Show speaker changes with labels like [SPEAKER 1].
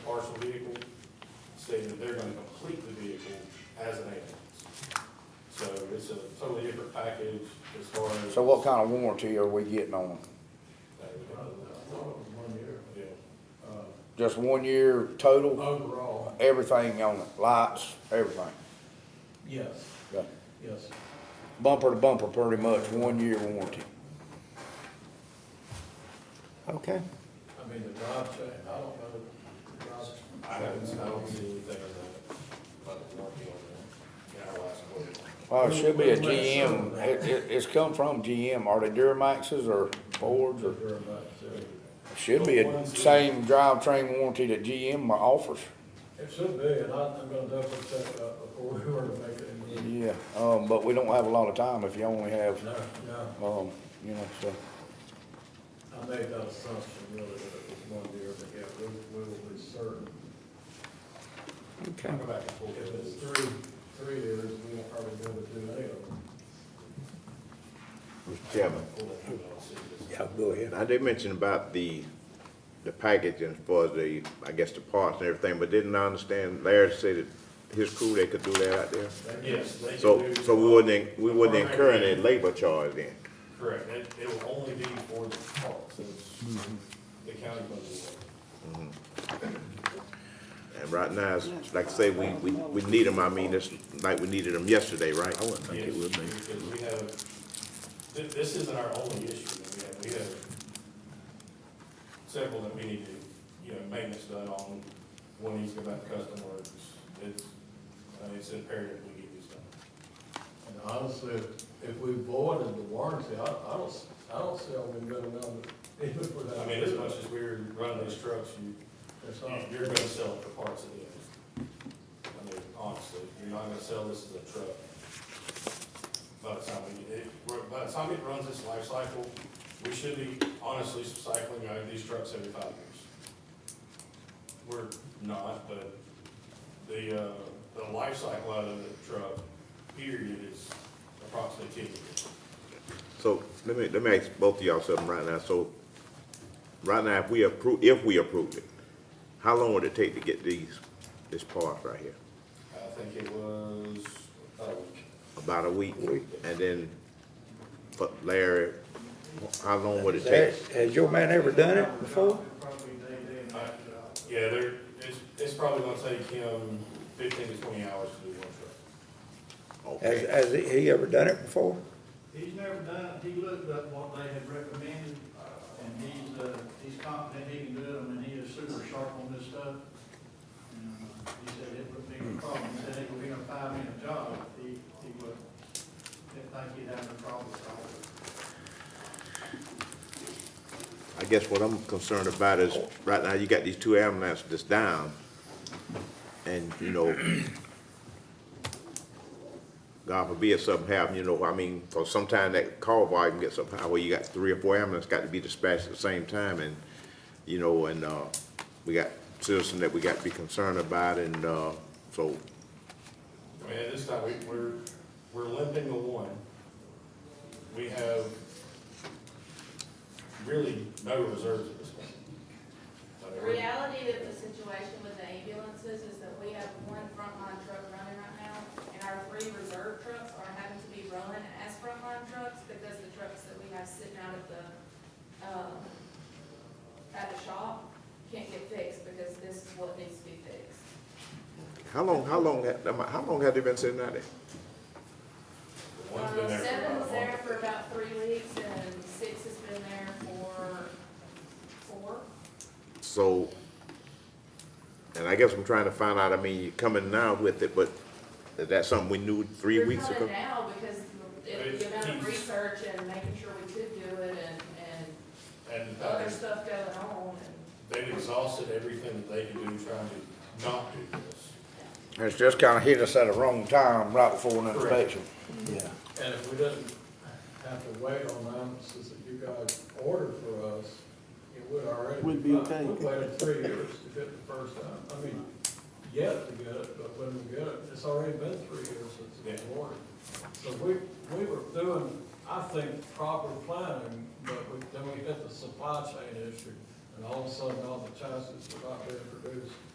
[SPEAKER 1] parcel vehicle, stating that they're gonna complete the vehicle as an ambulance. So it's a totally different package as far as.
[SPEAKER 2] So what kind of warranty are we getting on them?
[SPEAKER 3] One year,
[SPEAKER 1] Yeah,
[SPEAKER 3] uh,
[SPEAKER 2] Just one year total,
[SPEAKER 3] overall,
[SPEAKER 2] everything on it, lights, everything?
[SPEAKER 3] yes,
[SPEAKER 2] Okay.
[SPEAKER 3] yes.
[SPEAKER 2] Bumper to bumper, pretty much, one year warranty.
[SPEAKER 4] Okay.
[SPEAKER 3] I mean, the drive chain, I don't know, the drive chain,
[SPEAKER 1] I haven't, I don't see anything in that, about the warranty on that, in our last quote.
[SPEAKER 2] Well, Uh, it should be a GM, it, it, it's come from GM, are they Duramaxes or Fords or?
[SPEAKER 3] they're about zero.
[SPEAKER 2] It Should be a same drivetrain warranty that GM offers.
[SPEAKER 3] It should be, and I- I'm gonna double check uh, that before we were to make it.
[SPEAKER 2] Yeah, um, but we don't have a lot of time if you only have,
[SPEAKER 3] No, no,
[SPEAKER 2] um, you know, so.
[SPEAKER 3] I made that assumption really that it was one year, but yeah, we, we will be certain.
[SPEAKER 4] Okay.
[SPEAKER 1] Go back and forth.
[SPEAKER 3] If it's three, three years, we won't probably be able to do any of them.
[SPEAKER 5] Mr. Chairman,
[SPEAKER 1] Pull that through, I'll see this.
[SPEAKER 4] Yeah, go ahead.
[SPEAKER 5] I did mention about the, the package and as far as the, I guess, the parts and everything, but didn't I understand Larry said that his crew, they could do that out there?
[SPEAKER 1] Yes, they can
[SPEAKER 5] So,
[SPEAKER 1] do-
[SPEAKER 5] so we wouldn't, en- we wouldn't incur any labor charge then?
[SPEAKER 1] Correct, it, it will only be for the parks, it's, the county budget.
[SPEAKER 5] And right now, it's, like I say, we, we, we need them, I mean, it's like we needed them yesterday, right? I wouldn't
[SPEAKER 1] Yes, Because we have, thi- this isn't our only issue that we have, we have several that we need to, you know, maintenance done on, one needs to go back to custom works, it's, uh, it's imperative we get this done.
[SPEAKER 3] And honestly, if- if we voided the warranty, I, I don't, s- I don't see how we can go down to, even for that.
[SPEAKER 1] I mean, as much as we're running these trucks, you,
[SPEAKER 3] It's not-
[SPEAKER 1] you're gonna sell it for parts at the end. I mean, honestly, you're not gonna sell this as a truck. By the time we, it, we're- by the time it runs its life cycle, we should be honestly cycling out of these trucks every five years. We're not, but the, uh, the life cycle out of the truck, period, is approximately ten years.
[SPEAKER 5] So, let me, let me ask both of y'all something right now, so, right now, if we approve, if we approved it, how long would it take to get these, this part right here?
[SPEAKER 1] I think it was oh, about a week.
[SPEAKER 5] About a week, and then, but Larry, how long would it take?
[SPEAKER 4] Has your man ever done it before?
[SPEAKER 1] Yeah, there, it's, it's probably gonna take him fifteen to twenty hours to do one truck.
[SPEAKER 4] Has,
[SPEAKER 5] Okay.
[SPEAKER 4] has he ever done it before?
[SPEAKER 6] He's never done it, he looked up what they had recommended, and he's, uh, he's confident he can do it, I mean, he is super sharp on this stuff. And uh, he said it would be a problem, he said it would be a five-minute job, if he, he would, didn't think he'd have a problem at all.
[SPEAKER 5] I guess what I'm concerned about is, right now, you got these two ambulances that's down, and, you know, God forbid something happen, you know, I mean, for sometime that call volume gets up high, where you got three or four ambulances got to be dispatched at the same time, and, you know, and, uh, we got citizens that we got to be concerned about, and, uh, so,
[SPEAKER 1] I mean, at this time, we, we're, we're limping the one. We have really no reserves at this point. I
[SPEAKER 7] The
[SPEAKER 1] mean, we're-
[SPEAKER 7] reality of the situation with the ambulances is that we have one frontline truck running right now, and our three reserve trucks are having to be running as frontline trucks because the trucks that we have sitting out at the, um, at the shop can't get fixed because this is what needs to be fixed.
[SPEAKER 5] how long, how long, had- how long have they been sitting out there?
[SPEAKER 1] the one's been there
[SPEAKER 7] Um,
[SPEAKER 1] for about a
[SPEAKER 7] seven was there
[SPEAKER 1] month.
[SPEAKER 7] for about three weeks, and six has been there for four.
[SPEAKER 5] So, and I guess I'm trying to find out, I mean, you're coming now with it, but is that something we knew three
[SPEAKER 7] We're
[SPEAKER 5] weeks ago?
[SPEAKER 7] coming now because it- the amount of research and making sure we could do it and, and
[SPEAKER 1] And uh,
[SPEAKER 7] other stuff going on and.
[SPEAKER 1] they've exhausted everything that they could do trying to not do this.
[SPEAKER 2] It's just kinda hit us at the wrong time, right before an
[SPEAKER 1] Correct.
[SPEAKER 2] inspection.
[SPEAKER 4] Yeah.
[SPEAKER 3] And if we didn't have to wait on ambulances that you guys ordered for us, it would already.
[SPEAKER 4] We'd be okay.
[SPEAKER 3] We waited three years to get the first time, I mean, yet to get it, but when we get it, it's already been three years since it was ordered. So we, we were doing, I think, proper planning, but we, then we hit the supply chain issue, and all of a sudden, all the chassis were not being produced